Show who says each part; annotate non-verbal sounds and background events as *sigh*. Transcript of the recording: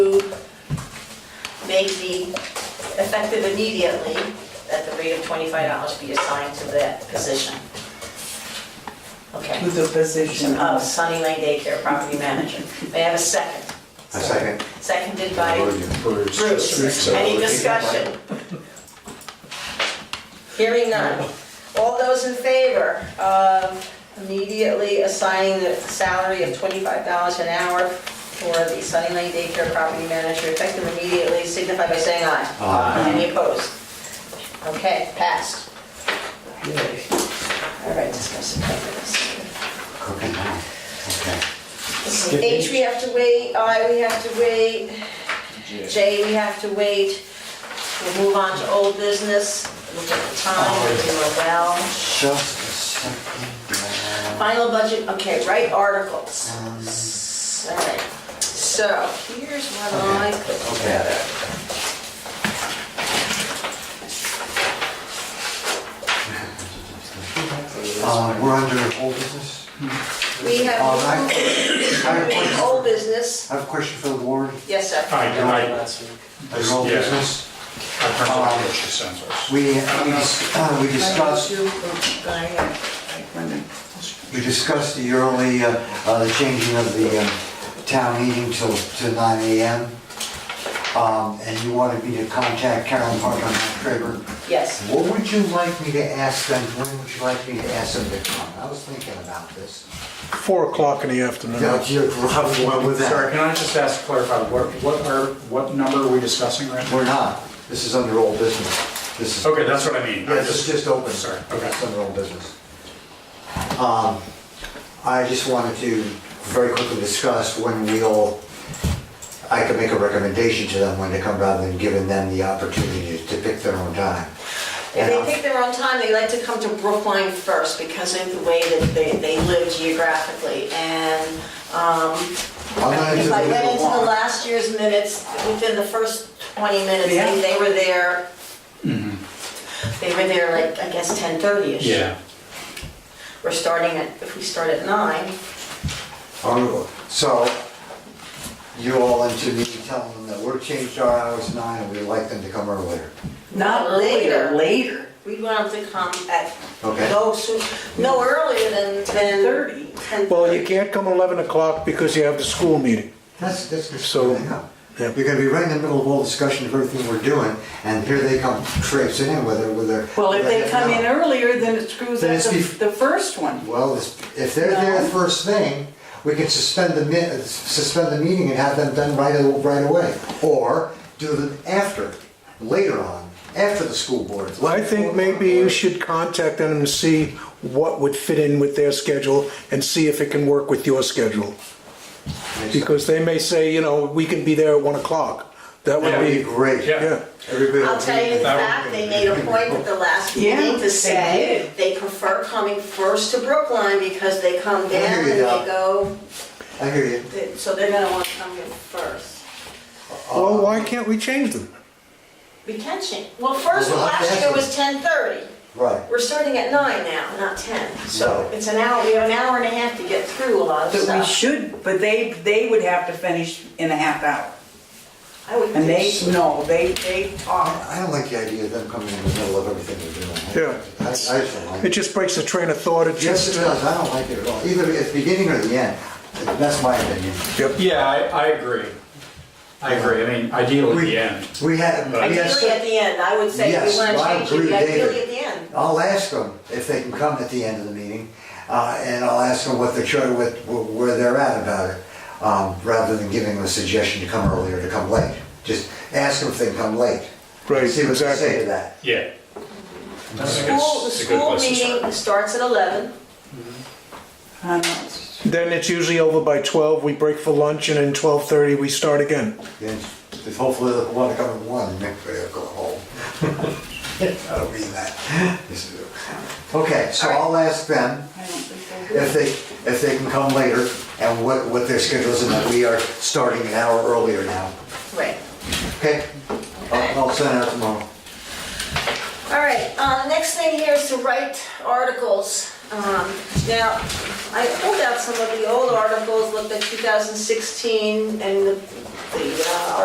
Speaker 1: may be effective immediately, that the rate of $25 be assigned to that position. Okay.
Speaker 2: To the position
Speaker 1: Of
Speaker 2: of,
Speaker 1: Sunny Lane Daycare Property Manager. May I have a second?
Speaker 3: A second.
Speaker 1: Seconded by Bruce.
Speaker 4: So-
Speaker 1: Any discussion? Hearing none. All those in favor of immediately assigning the salary of twenty-five dollars an hour for the Sunny Lane Daycare Property Manager effective immediately signify by saying aye.
Speaker 3: Aye.
Speaker 1: Any opposed? Okay, passed. All right, discuss and cover this.
Speaker 3: Okay, now, okay.
Speaker 1: H, we have to wait, I, we have to wait, J, we have to wait. We'll move on to old business, look at the time, we're doing well.
Speaker 3: Just a second.
Speaker 1: Final budget, okay, right articles. All right, so here's what I put together.
Speaker 3: Uh, We're under old business.
Speaker 1: We
Speaker 3: All
Speaker 1: have
Speaker 3: right. I have a
Speaker 1: moved
Speaker 3: question-
Speaker 1: *coughs* old business,
Speaker 3: I have a question for the board.
Speaker 1: yes, sir.
Speaker 4: Hi, good night.
Speaker 3: Under old
Speaker 4: Yeah.
Speaker 3: business,
Speaker 4: I'm from Robert Sensors.
Speaker 3: we, we dis- uh, we discussed, we discussed the early, uh, uh, the changing of the um, town meeting till, to nine AM. Um, And you wanted me to contact Carolyn Park on that favor.
Speaker 1: Yes,
Speaker 3: What would you like me to ask them, when would you like me to ask them to come? I was thinking about this.
Speaker 5: Four o'clock in the afternoon.
Speaker 3: Yeah, you're right, well, with
Speaker 4: Sorry,
Speaker 3: that.
Speaker 4: can I just ask, to clarify, what, what are, what number are we discussing right now?
Speaker 3: We're not, this is under old business. This is,
Speaker 4: Okay, that's what I mean. I
Speaker 3: yeah, this is just open,
Speaker 4: Sorry,
Speaker 3: sir.
Speaker 4: okay.
Speaker 3: It's under old business. Um, I just wanted to very quickly discuss when we'll, I could make a recommendation to them when they come rather than giving them the opportunity to pick their own time.
Speaker 1: if they pick their own time, they like to come to Brookline first because of the way that they, they live geographically. And
Speaker 3: I'm gonna do
Speaker 1: if
Speaker 3: the
Speaker 1: I went
Speaker 3: legal
Speaker 1: into the
Speaker 3: one.
Speaker 1: last year's minutes, within the first 20 minutes,
Speaker 2: Yeah.
Speaker 1: they they were there,
Speaker 3: Mm-hmm.
Speaker 1: they were there like, I guess, 10:30-ish.
Speaker 4: Yeah,
Speaker 1: We're starting at, if we start at nine,
Speaker 3: Oh, So, you all into me telling them that we're changed our hours to nine and we'd like them to come earlier,
Speaker 2: not later, later,
Speaker 1: we want them to come at
Speaker 3: okay?
Speaker 1: no, soo- no earlier than, than.
Speaker 2: 30.
Speaker 1: 10:30.
Speaker 5: Well, you can't come 11 o'clock because you have the school meeting.
Speaker 3: That's, that's good.
Speaker 5: So-
Speaker 3: You're
Speaker 5: Yeah.
Speaker 3: gonna be right in the middle of all discussion of everything we're doing, and here they come traipsing in with their, with their.
Speaker 2: Well, if they
Speaker 3: with their-
Speaker 2: come in earlier, then it screws
Speaker 3: Then
Speaker 2: up
Speaker 3: it's bef-
Speaker 2: the, the first one.
Speaker 3: Well, this- if they're there
Speaker 2: No.
Speaker 3: first thing, we can suspend the mi, suspend the meeting and have them done right, a- right away. Or do them after, later on, after the school board.
Speaker 5: Well, I think maybe you should contact them and see what would fit in with their schedule and see if it can work with your schedule. Because they may say, you know, we can be there at 1 o'clock. That would
Speaker 3: That would be
Speaker 5: be,
Speaker 3: great.
Speaker 4: Yeah.
Speaker 5: yeah.
Speaker 3: Everybody.
Speaker 1: I'll tell you in
Speaker 4: That would-
Speaker 1: fact, they made a point at the last
Speaker 2: Yeah,
Speaker 1: meeting
Speaker 2: they
Speaker 1: to say
Speaker 2: did.
Speaker 1: they prefer coming first to Brookline because they come
Speaker 3: hear
Speaker 1: down and
Speaker 3: you
Speaker 1: they
Speaker 3: now.
Speaker 1: go,
Speaker 3: I hear you.
Speaker 1: they- so they're gonna want to come here first.
Speaker 5: Well, why can't we change them?
Speaker 1: We can change, well, first,
Speaker 3: Well, we'll have to
Speaker 1: last
Speaker 3: ask
Speaker 1: year
Speaker 3: them.
Speaker 1: was ten thirty.
Speaker 3: Right.
Speaker 1: We're starting at nine now, not ten. So
Speaker 3: Right.
Speaker 1: it's an hour, we have an hour and a half to get through a lot of
Speaker 2: But we
Speaker 1: stuff.
Speaker 2: should, but they, they would have to finish in a half hour.
Speaker 1: I would
Speaker 2: And they,
Speaker 1: think-
Speaker 2: no, they, they talk.
Speaker 3: I don't like the idea of them coming in the middle of everything we're doing.
Speaker 5: Yeah.
Speaker 3: I, I just don't like
Speaker 5: It
Speaker 3: it.
Speaker 5: just breaks the train of thought. It
Speaker 3: Yes, it
Speaker 5: just,
Speaker 3: does, I don't like it at all, either at the beginning or the end, that's my opinion.
Speaker 4: yeah, I, I agree. I agree, I mean, ideally the end.
Speaker 3: We had, we had,
Speaker 1: Ideally at
Speaker 3: cer-
Speaker 1: the end, I would say if
Speaker 3: Yes,
Speaker 1: we want
Speaker 3: well,
Speaker 1: to
Speaker 3: I
Speaker 1: change it,
Speaker 3: agree
Speaker 1: but
Speaker 3: with
Speaker 1: ideally
Speaker 3: David.
Speaker 1: at the end.
Speaker 3: I'll ask them if they can come at the end of the meeting, uh, and I'll ask them what their charter, what, where they're at about it, um, rather than giving them a suggestion to come early or to come late. Just ask them if they can come late.
Speaker 5: Right,
Speaker 3: See what they say
Speaker 5: exactly.
Speaker 3: to that.
Speaker 4: Yeah. I think it's
Speaker 1: School, the
Speaker 4: a good
Speaker 1: school
Speaker 4: place to start.
Speaker 1: meeting starts at eleven.
Speaker 2: I know.
Speaker 5: then it's usually over by 12. We break for lunch and then 12:30 we start again.
Speaker 3: Then just hopefully they'll want to come at one, and everybody will go home. *laughs* That'll be that. This is- Okay, so I'll ask them
Speaker 2: I don't think they would.
Speaker 3: if they, if they can come later, and what, what their schedule is, and that we are starting an hour earlier now.
Speaker 1: Right.
Speaker 3: Okay,
Speaker 1: Okay.
Speaker 3: I'll, I'll send it out tomorrow.
Speaker 1: All right, uh, next thing here is to write articles. Um, Now, I pulled out some of the old articles, looked at 2016 and the the, uh,